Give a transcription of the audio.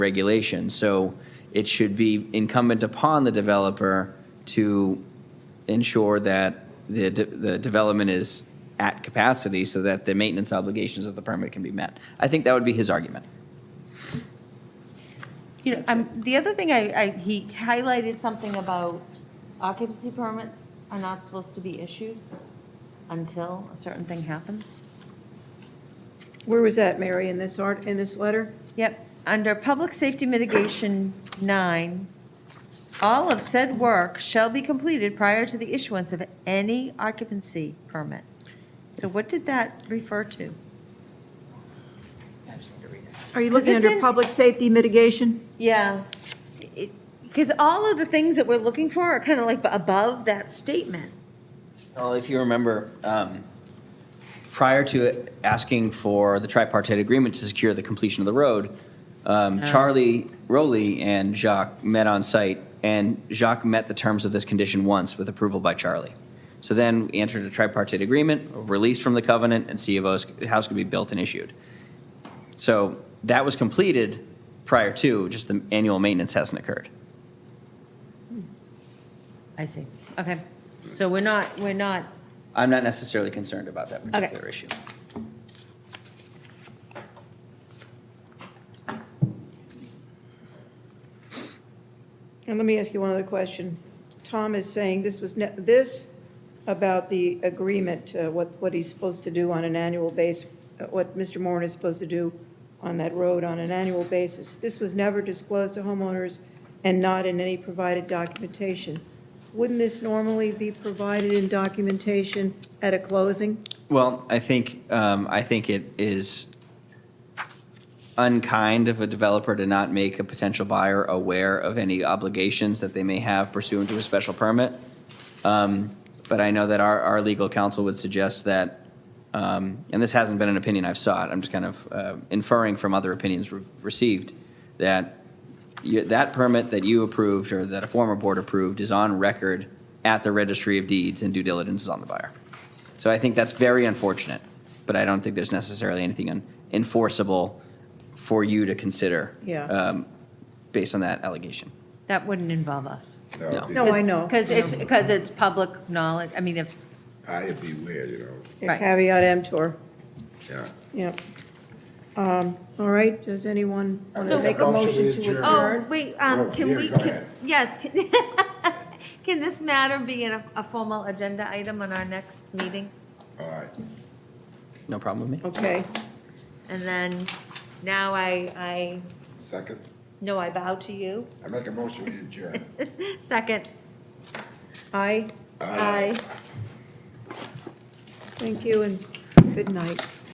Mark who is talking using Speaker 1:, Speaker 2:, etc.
Speaker 1: regulation. So it should be incumbent upon the developer to ensure that the, de- the development is at capacity so that the maintenance obligations of the permit can be met. I think that would be his argument.
Speaker 2: You know, um, the other thing I, I, he highlighted something about occupancy permits are not supposed to be issued until a certain thing happens.
Speaker 3: Where was that, Mary, in this art, in this letter?
Speaker 2: Yep, under Public Safety Mitigation 9, all of said work shall be completed prior to the issuance of any occupancy permit. So what did that refer to?
Speaker 3: Are you looking
Speaker 2: Because it's
Speaker 3: under
Speaker 2: in-
Speaker 3: public safety mitigation?
Speaker 2: Yeah. Because all of the things that we're looking for are kind of like above that statement.
Speaker 1: Well, if you remember, um, prior to asking for the tripartite agreement to secure the completion of the road, um, Charlie Rowley and Jacques met on site, and Jacques met the terms of this condition once with approval by Charlie. So then we entered a tripartite agreement, released from the covenant, and C of O's, the house could be built and issued. So that was completed prior to, just the annual maintenance hasn't occurred.
Speaker 2: I see. Okay. So we're not, we're not,
Speaker 1: I'm not necessarily concerned about that particular issue.
Speaker 3: And let me ask you one other question. Tom is saying this was, ne- this about the agreement, uh, what, what he's supposed to do on an annual base, uh, what Mr. Moran is supposed to do on that road on an annual basis. This was never disclosed to homeowners and not in any provided documentation. Wouldn't this normally be provided in documentation at a closing?
Speaker 1: Well, I think, um, I think it is unkind of a developer to not make a potential buyer aware of any obligations that they may have pursuant to a special permit. Um, But I know that our, our legal counsel would suggest that, um, and this hasn't been an opinion I've sought, I'm just kind of uh, inferring from other opinions re- received, that you- that permit that you approved or that a former board approved is on record at the registry of deeds and due diligence is on the buyer. So I think that's very unfortunate, but I don't think there's necessarily anything un- enforceable for you to consider.
Speaker 3: Yeah.
Speaker 1: um, Based on that allegation.
Speaker 2: that wouldn't involve us.
Speaker 1: No.
Speaker 3: No,
Speaker 4: Oh,
Speaker 3: I know.
Speaker 2: Because it's, because it's public knowledge, I mean, if,
Speaker 4: I beware, you know,
Speaker 3: Yeah,
Speaker 2: Right.
Speaker 3: Caveat emptor,
Speaker 4: yeah.
Speaker 3: yep. Um, All right, does anyone want to
Speaker 4: No.
Speaker 3: make a motion to
Speaker 4: Motion to
Speaker 2: oh,
Speaker 3: adjourn?
Speaker 2: wait,
Speaker 4: Oh,
Speaker 2: um, can
Speaker 4: yeah,
Speaker 2: we,
Speaker 4: go
Speaker 2: can-
Speaker 4: ahead.
Speaker 2: yes, can- can this matter be in a, a formal agenda item on our next meeting?
Speaker 4: All right.
Speaker 1: No problem with me?
Speaker 3: Okay,
Speaker 2: And then, now I, I,
Speaker 4: Second,
Speaker 2: no, I bow to you.
Speaker 4: I make a motion to adjourn.
Speaker 2: Second,
Speaker 3: aye,
Speaker 4: Aye.
Speaker 2: aye.
Speaker 3: thank you, and good night.